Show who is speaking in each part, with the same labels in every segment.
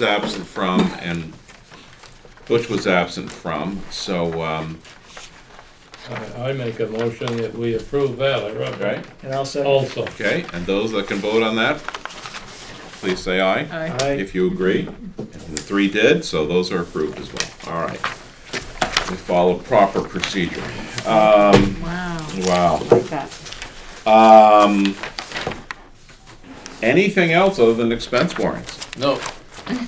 Speaker 1: was absent from and Butch was absent from, so, um,
Speaker 2: I I make a motion that we approve Valley Road.
Speaker 1: okay,
Speaker 3: And I'll second.
Speaker 2: Also,
Speaker 1: okay, and those that can vote on that, please say aye.
Speaker 4: Aye.
Speaker 3: Aye.
Speaker 1: If you agree, and the three did, so those are approved as well, all right. We follow proper procedure.
Speaker 4: Wow.
Speaker 1: Wow.
Speaker 4: Like that.
Speaker 1: Um, anything else other than expense warrants?
Speaker 2: no,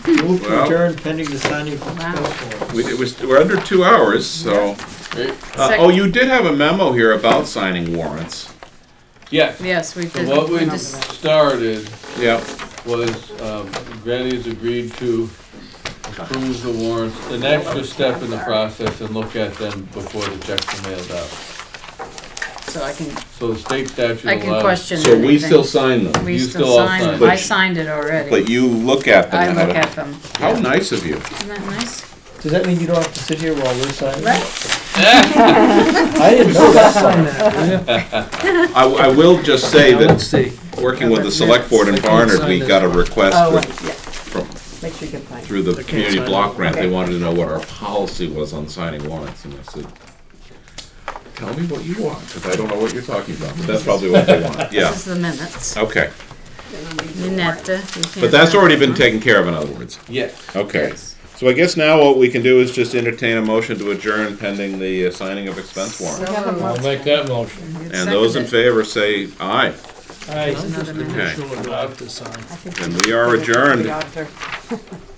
Speaker 3: Move to
Speaker 1: Well-
Speaker 3: adjourn pending the signing of
Speaker 4: Wow.
Speaker 3: expense warrant.
Speaker 1: We, it was, we're under two hours, so.
Speaker 2: eh,
Speaker 1: Uh, oh, you did have a memo here about signing warrants.
Speaker 2: yes,
Speaker 4: Yes, we
Speaker 2: So
Speaker 4: did.
Speaker 2: what we
Speaker 4: went over that.
Speaker 2: started
Speaker 1: Yeah.
Speaker 2: was, um, Granny's agreed to approve the warrants, an extra step in the process and look at them before the checks are mailed out.
Speaker 4: So I can,
Speaker 2: So the state statute
Speaker 4: I
Speaker 2: allows.
Speaker 4: can question
Speaker 1: So we
Speaker 4: anything.
Speaker 1: still sign them,
Speaker 4: We
Speaker 2: you
Speaker 4: still
Speaker 2: still all
Speaker 4: signed,
Speaker 2: signed.
Speaker 4: them. I
Speaker 1: But-
Speaker 4: signed it
Speaker 1: but
Speaker 4: already.
Speaker 1: you look at them.
Speaker 4: I look
Speaker 1: Heather.
Speaker 4: at them.
Speaker 1: How nice of you.
Speaker 4: Isn't that nice?
Speaker 3: Does that mean you don't have to sit here while we're signing?
Speaker 4: Right?
Speaker 3: I didn't know that. Sign that.
Speaker 1: I, I will just say that,
Speaker 3: see.
Speaker 1: working with the select board in Barnard, we got a request
Speaker 4: Oh,
Speaker 1: that-
Speaker 4: right, yeah.
Speaker 1: from,
Speaker 4: Make sure you can find. it.
Speaker 1: through the community
Speaker 3: sign
Speaker 1: block grant, they
Speaker 4: Okay.
Speaker 1: wanted to know what our policy was on signing warrants, and I said, tell me what you want, because I don't know what you're talking about, but that's probably what they want, yeah,
Speaker 4: This is the minutes.
Speaker 1: okay.
Speaker 4: Minette, you can't
Speaker 1: But that's
Speaker 4: find
Speaker 1: already
Speaker 4: it,
Speaker 1: been
Speaker 4: huh?
Speaker 1: taken care of, in other words.
Speaker 2: Yes.
Speaker 1: Okay.
Speaker 4: Yes.
Speaker 1: So I guess now what we can do is just entertain a motion to adjourn pending the uh, signing of expense warrant.
Speaker 2: I'll make that motion.
Speaker 4: It's
Speaker 1: And those in
Speaker 4: seconded.
Speaker 1: favor say aye.
Speaker 3: Aye.
Speaker 4: Another minute.
Speaker 1: Okay,
Speaker 4: I think
Speaker 1: and we are adjourned.
Speaker 4: the auditor.